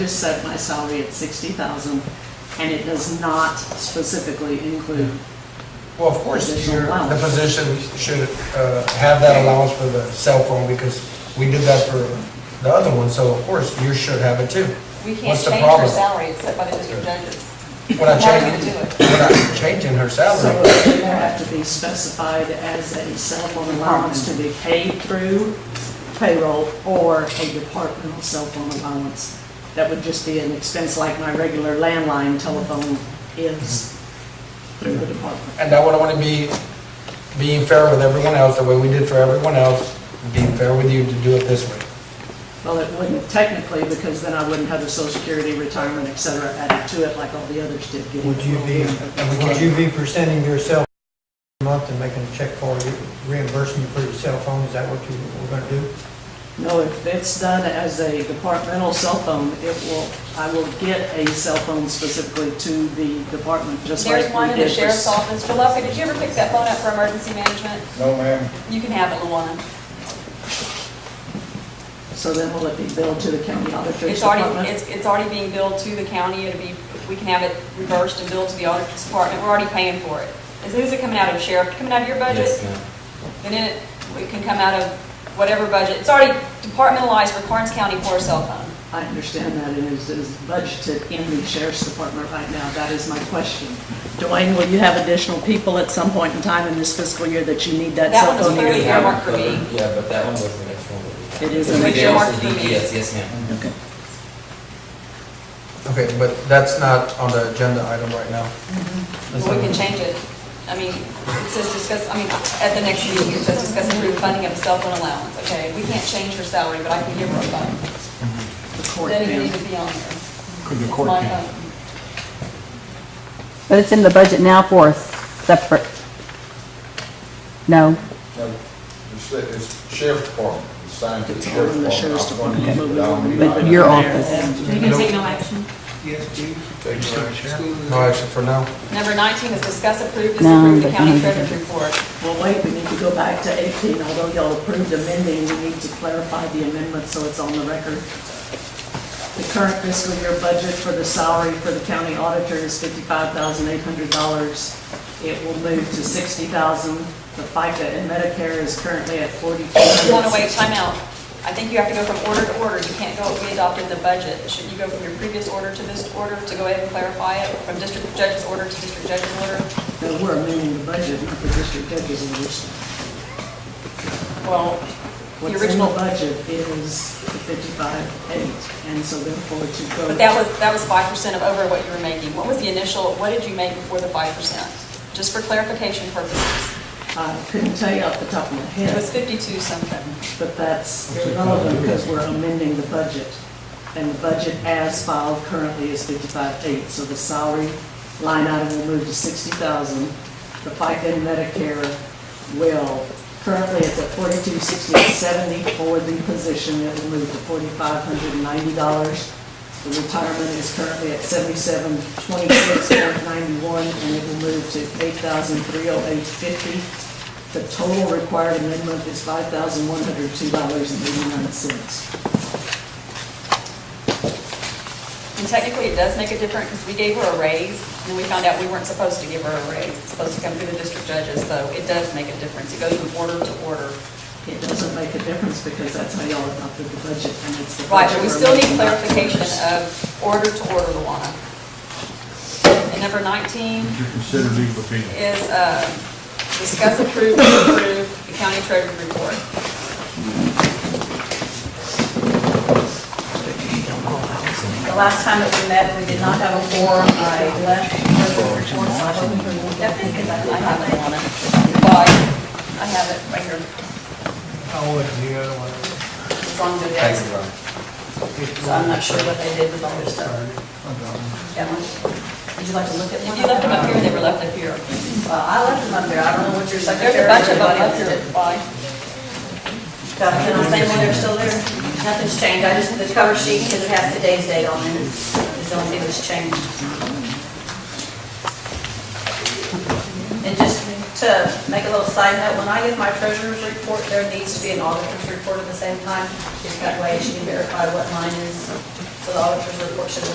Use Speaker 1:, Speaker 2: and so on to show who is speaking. Speaker 1: just set my salary at sixty thousand, and it does not specifically include,
Speaker 2: Well, of course,
Speaker 1: Additional
Speaker 2: your- the
Speaker 1: allowance.
Speaker 2: position should uh, have that allowance for the cell phone, because we did that for the other one, so of course, you should have it too.
Speaker 3: We can't
Speaker 2: What's the
Speaker 3: change her
Speaker 2: problem?
Speaker 3: salary except by the district judges.
Speaker 2: We're not
Speaker 3: How are we
Speaker 2: changing,
Speaker 3: gonna do
Speaker 2: we're not changing her
Speaker 1: so
Speaker 2: salary.
Speaker 1: it would have to be specified as a cell phone allowance to be paid through payroll or a departmental cell phone allowance. That would just be an expense like my regular landline telephone is through the department.
Speaker 2: And I would want to be, being fair with everyone else, the way we did for everyone else, being fair with you to do it this way.
Speaker 1: Well, it wouldn't technically, because then I wouldn't have the social security, retirement, et cetera, added to it like all the others did. get.
Speaker 4: Would you be, would you be presenting yourself a month and making a check for re- reimbursement for your cell phone? Is that what you were gonna do?
Speaker 1: No, if it's done as a departmental cell phone, it will, I will get a cell phone specifically to the department, just like we did.
Speaker 3: There's one in the
Speaker 1: for-
Speaker 3: sheriff's office. Jalopy, did you ever pick that phone up for emergency management?
Speaker 5: No, ma'am.
Speaker 3: You can have it, Luana.
Speaker 1: So then will it be billed to the county auditor's
Speaker 3: It's already,
Speaker 1: department?
Speaker 3: it's, it's already being billed to the county. It'll be, we can have it reversed and billed to the auditor's department. We're already paying for it. Is, who's it coming out of, sheriff? Coming out of your budget? Then it, it can come out of whatever budget. It's already departmentalized for Karnes County for a cell phone.
Speaker 1: I understand that, and it is budgeted in the sheriff's department right now, that is my question. Dwayne, will you have additional people at some point in time in this fiscal year that you need that
Speaker 3: That
Speaker 1: cell
Speaker 3: one's
Speaker 1: phone?
Speaker 3: clearly
Speaker 1: area?
Speaker 3: earmarked for me.
Speaker 6: Yeah, but that one was the next one. that
Speaker 1: It
Speaker 6: we had.
Speaker 1: is
Speaker 6: Because
Speaker 1: an
Speaker 6: we did also
Speaker 3: earmarked for
Speaker 6: the
Speaker 3: me.
Speaker 6: DPS, yes, ma'am.
Speaker 1: Okay.
Speaker 2: Okay, but that's not on the agenda item right now. That's
Speaker 3: Well, we can
Speaker 2: not-
Speaker 3: change it. I mean, it says discuss, I mean, at the next meeting, it says discuss approved funding of cell phone allowance, okay? We can't change her salary, but I can give her a phone.
Speaker 1: The court
Speaker 3: Then it
Speaker 1: then.
Speaker 3: needs to be on there.
Speaker 7: Could the
Speaker 3: It's
Speaker 7: court
Speaker 3: my
Speaker 7: can-
Speaker 3: phone.
Speaker 8: But it's in the budget now for a separate, no,
Speaker 5: No, It's it's sheriff's department, it's signed to the
Speaker 1: Tell them the sheriff's
Speaker 5: sheriff's department. I'm
Speaker 1: department.
Speaker 5: funding it, but I don't need
Speaker 8: but
Speaker 5: it.
Speaker 8: your office.
Speaker 9: So you can take no action?
Speaker 5: Take your action.
Speaker 2: No action for now.
Speaker 3: Number 19 is discuss approved,
Speaker 8: No,
Speaker 3: disapprove the
Speaker 8: but
Speaker 3: county
Speaker 8: no.
Speaker 3: treasurer's report.
Speaker 1: Well, wait, we need to go back to 18, although y'all approved amending, we need to clarify the amendment so it's on the record. The current fiscal year budget for the salary for the county auditor is $55,800. It will move to 60,000. The FICA and Medicare is currently at 42.
Speaker 3: You want to wait, time out. I think you have to go from order to order. You can't go, we adopted the budget. Should you go from your previous order to this order to go ahead and clarify it? From district judge's order to district judge's order?
Speaker 1: No, we're amending the budget, not the district judge's orders.
Speaker 3: Well, the
Speaker 1: What's in the
Speaker 3: original
Speaker 1: budget is the 55,800, and so therefore to go.
Speaker 3: But that was, that was five percent of over what you were making. What was the initial, what did you make before the five percent? Just for clarification purposes.
Speaker 1: I couldn't tell you off the top of my head.
Speaker 3: It was fifty-two something.
Speaker 1: But that's irrelevant because we're amending the budget. And the budget as filed currently is 55.8. So the salary line item will move to 60,000. The FICA and Medicare will, currently it's at 42,670 for the position. It will move to $4,590. The retirement is currently at 77,26,91 and it will move to 8,308.50. The total required amendment is five thousand one hundred two dollars and eighty-nine cents.
Speaker 3: And technically, it does make a difference because we gave her a raise and we found out we weren't supposed to give her a raise. It's supposed to come through the district judges, so it does make a difference. It goes from order to order.
Speaker 1: It doesn't make a difference because that's how y'all adopted the budget and it's the.
Speaker 3: Right,
Speaker 1: budget
Speaker 3: but we
Speaker 1: we're
Speaker 3: still need
Speaker 1: making.
Speaker 3: clarification of order to order, Luana. And number nineteen
Speaker 7: Would you consider legal opinion?
Speaker 3: is, uh, discuss approve, approve the county treasurer's report.
Speaker 10: The last time that we met, we did not have a forum, I left.
Speaker 3: Definitely, because I I have it on it. But I have it right here.
Speaker 4: Oh, it's the other one.
Speaker 3: It's on the
Speaker 2: Thank
Speaker 3: desk.
Speaker 2: you, Ron.
Speaker 10: So I'm not sure what they did with all their stuff.
Speaker 3: Ellen,
Speaker 10: Would you like to look at
Speaker 3: If
Speaker 10: one?
Speaker 3: you left them up here, they were left up here.
Speaker 10: Well, I left them up there. I don't know what your
Speaker 3: There's
Speaker 10: secretary.
Speaker 3: a bunch of them
Speaker 10: everybody
Speaker 3: up
Speaker 10: else
Speaker 3: here.
Speaker 10: did.
Speaker 3: Why?
Speaker 10: Got them on the same one, they're still there. Nothing's changed. I just, the cover sheet, because it has today's date on it, is the only thing that's changed. And just to make a little side note, when I give my treasurer's report, there needs to be an auditor's report at the same time. Just that way she can verify what mine is
Speaker 3: So the auditor's report should